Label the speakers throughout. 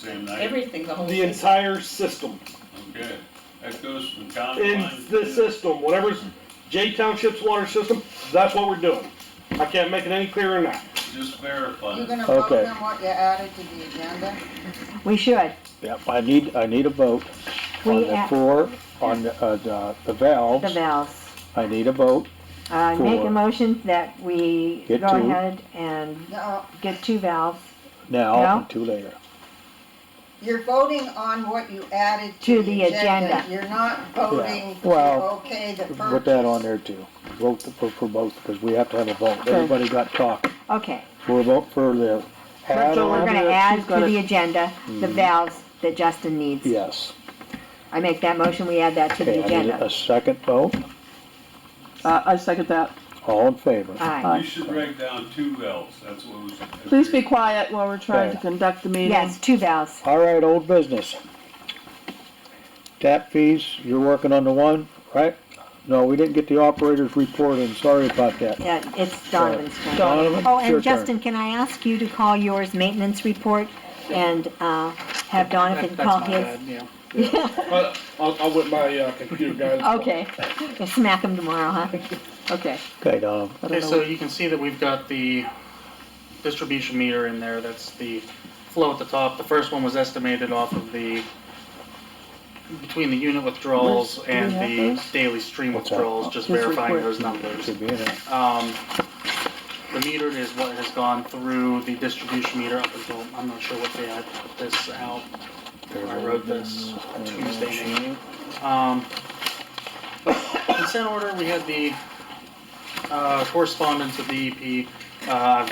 Speaker 1: same night?
Speaker 2: everything, the whole.
Speaker 3: The
Speaker 2: system.
Speaker 3: entire system,
Speaker 1: Okay, that goes from town to
Speaker 3: in
Speaker 1: line.
Speaker 3: the system, whatever's J Township's water system, that's what we're doing. I can't make it any clearer than that.
Speaker 1: Just verify.
Speaker 4: You're
Speaker 1: it.
Speaker 4: gonna vote
Speaker 5: Okay.
Speaker 4: on what you added to the agenda?
Speaker 5: We should.
Speaker 6: Yep, I need, I need a vote on
Speaker 5: We
Speaker 6: the
Speaker 5: add
Speaker 6: four, on the, uh, the- the
Speaker 5: the
Speaker 6: valves.
Speaker 5: valves.
Speaker 6: I need a vote.
Speaker 5: I make a
Speaker 6: Four.
Speaker 5: motion that we go
Speaker 6: Get two.
Speaker 5: ahead and
Speaker 4: No,
Speaker 5: get two valves
Speaker 6: Now,
Speaker 5: No.
Speaker 6: and two later.
Speaker 4: you're voting on what you added
Speaker 5: To
Speaker 4: to
Speaker 5: the
Speaker 4: the
Speaker 5: agenda.
Speaker 4: agenda. You're not voting to
Speaker 6: Well,
Speaker 4: okay the purchase.
Speaker 6: Put that on there too. Vote for, for both, because we have to have a vote.
Speaker 5: Okay.
Speaker 6: Everybody got talking.
Speaker 5: Okay,
Speaker 6: We'll vote for the add
Speaker 5: so we're
Speaker 6: on.
Speaker 5: gonna
Speaker 3: it.
Speaker 5: add
Speaker 3: She's
Speaker 5: to
Speaker 3: gotta-
Speaker 5: the agenda the
Speaker 6: Hmm.
Speaker 5: valves that Justin needs.
Speaker 6: Yes.
Speaker 5: I make that motion, we add that to
Speaker 6: Okay,
Speaker 5: the
Speaker 6: I need a
Speaker 5: agenda.
Speaker 6: second vote.
Speaker 7: Uh, I second that.
Speaker 6: All in favor?
Speaker 5: Aye.
Speaker 1: You should break down two valves, that's what was.
Speaker 7: Please be quiet while we're trying to
Speaker 6: Okay.
Speaker 7: conduct the meeting.
Speaker 5: Yes, two valves.
Speaker 6: All right, old business. Tap fees, you're working on the one, right? No, we didn't get the operator's report in, sorry about that.
Speaker 5: Yeah, it's Donovan's turn.
Speaker 6: Donovan,
Speaker 5: Oh,
Speaker 6: it's your
Speaker 5: and
Speaker 6: turn.
Speaker 5: Justin, can I ask you to call yours maintenance report and, uh, have Donovan
Speaker 3: That- that's
Speaker 5: call
Speaker 3: my
Speaker 5: his?
Speaker 3: bad, yeah. I, I'll, I'll whip my, uh, computer guys.
Speaker 5: Okay, We'll smack him tomorrow, huh? Okay.
Speaker 6: Okay, Donovan,
Speaker 7: I don't know
Speaker 8: Okay, so
Speaker 7: what-
Speaker 8: you can see that we've got the distribution meter in there, that's the flow at the top. The first one was estimated off of the, between the unit withdrawals
Speaker 7: Where's- do we
Speaker 8: and
Speaker 7: have
Speaker 8: the
Speaker 7: those?
Speaker 8: daily stream
Speaker 6: What's that?
Speaker 8: withdrawals, just
Speaker 7: This
Speaker 8: verifying
Speaker 7: report.
Speaker 8: those numbers.
Speaker 6: should be in there.
Speaker 8: Um, the metered is what has gone through the distribution meter up until, I'm not sure what day I put this out. I wrote this
Speaker 6: Mm.
Speaker 8: Tuesday night. Um, consent order, we had the, uh, correspondence with the EP. Uh,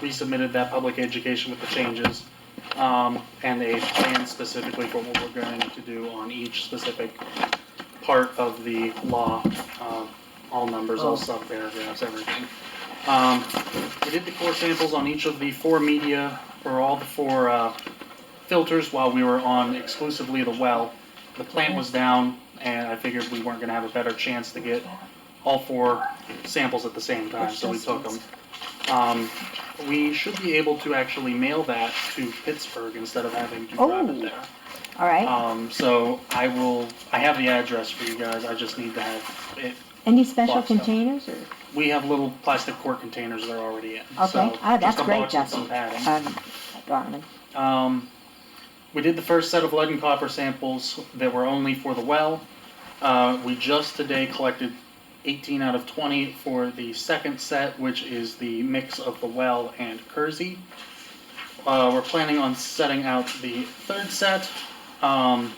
Speaker 8: resubmitted that public education with the changes. Um, and a plan specifically for what we're going to do on each specific part of the law. Uh, all numbers, all sub-paragraphs, everything. Um, we did the core samples on each of the four media, or all the four, uh, filters while we were on exclusively the well. The plant was down, and I figured we weren't gonna have a better chance to get all four samples at the same time, so we took them. Um, we should be able to actually mail that to Pittsburgh instead of having to drive
Speaker 5: Oh.
Speaker 8: it there.
Speaker 5: All
Speaker 3: Uh,
Speaker 5: right.
Speaker 8: Um, so I will, I have the address for you guys, I just need to have it.
Speaker 5: Any special
Speaker 8: box up.
Speaker 5: containers or?
Speaker 8: We have little plastic quart containers they're already in, so.
Speaker 5: Okay. Ah, that's
Speaker 8: just a
Speaker 5: great,
Speaker 8: box and some
Speaker 5: Justin.
Speaker 8: padding.
Speaker 5: Um, Donovan.
Speaker 8: Um, we did the first set of lead and copper samples that were only for the well. Uh, we just today collected 18 out of 20 for the second set, which is the mix of the well and Kersey. Uh, we're planning on setting out the third set, um,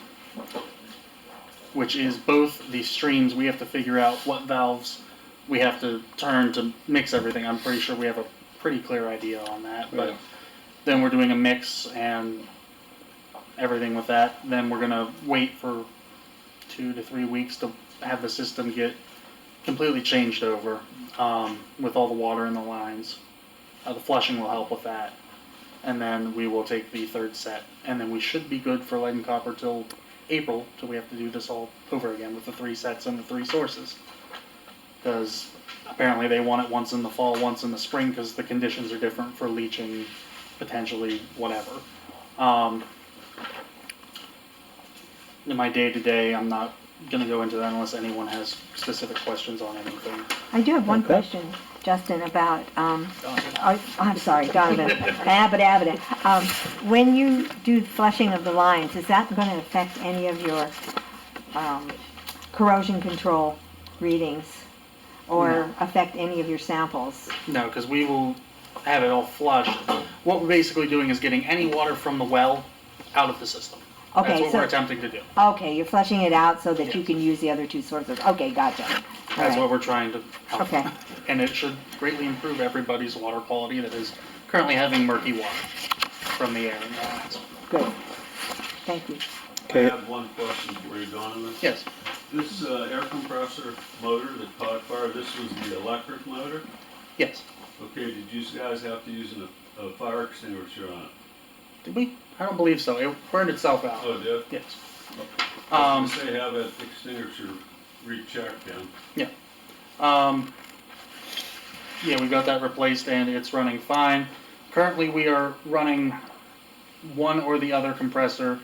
Speaker 8: which is both the streams. We have to figure out what valves we have to turn to mix everything. I'm pretty sure we have a pretty clear idea on that, but then we're doing a mix and everything with that. Then we're gonna wait for two to three weeks to have the system get completely changed over um, with all the water in the lines. Uh, the flushing will help with that, and then we will take the third set, and then we should be good for lead and copper till April, till we have to do this all over again with the three sets and the three sources. Because apparently they want it once in the fall, once in the spring, because the conditions are different for leaching potentially whatever. Um, in my day to day, I'm not going to go into that unless anyone has specific questions on anything.
Speaker 5: I do have one
Speaker 6: Okay.
Speaker 5: question, Justin, about, um, oh, I'm sorry, Donovan, Abbott, Abbott. Um, when you do flushing of the lines, is that gonna affect any of your, um, corrosion control readings? Or affect any of your samples?
Speaker 8: No, because we will have it all flushed. What we're basically doing is getting any water from the well out of the system. That's
Speaker 5: Okay,
Speaker 8: what we're
Speaker 5: so,
Speaker 8: attempting to do.
Speaker 5: okay, you're flushing it out so that you
Speaker 8: Yes.
Speaker 5: can use the other two sources. Okay, gotcha. All
Speaker 8: That's
Speaker 5: right.
Speaker 8: what we're trying to help.
Speaker 5: Okay.
Speaker 8: And it should greatly improve everybody's water quality that is currently having murky water from the air. and the lines.
Speaker 5: Good. Thank you.
Speaker 1: I have one question for you, Donovan.
Speaker 8: Yes.
Speaker 1: This uh, air compressor motor that caught fire, this was the electric motor?
Speaker 8: Yes.
Speaker 1: Okay, did you guys have to use a, a fire extinguisher on it?
Speaker 8: Did we? I don't believe so. It burned itself out.
Speaker 1: Oh, did?
Speaker 8: Yes.
Speaker 1: I
Speaker 8: Um,
Speaker 1: was gonna say have that extinguisher rechecked then.
Speaker 8: Um, yeah, we got that replaced and it's running fine. Currently, we are running one or the other compressor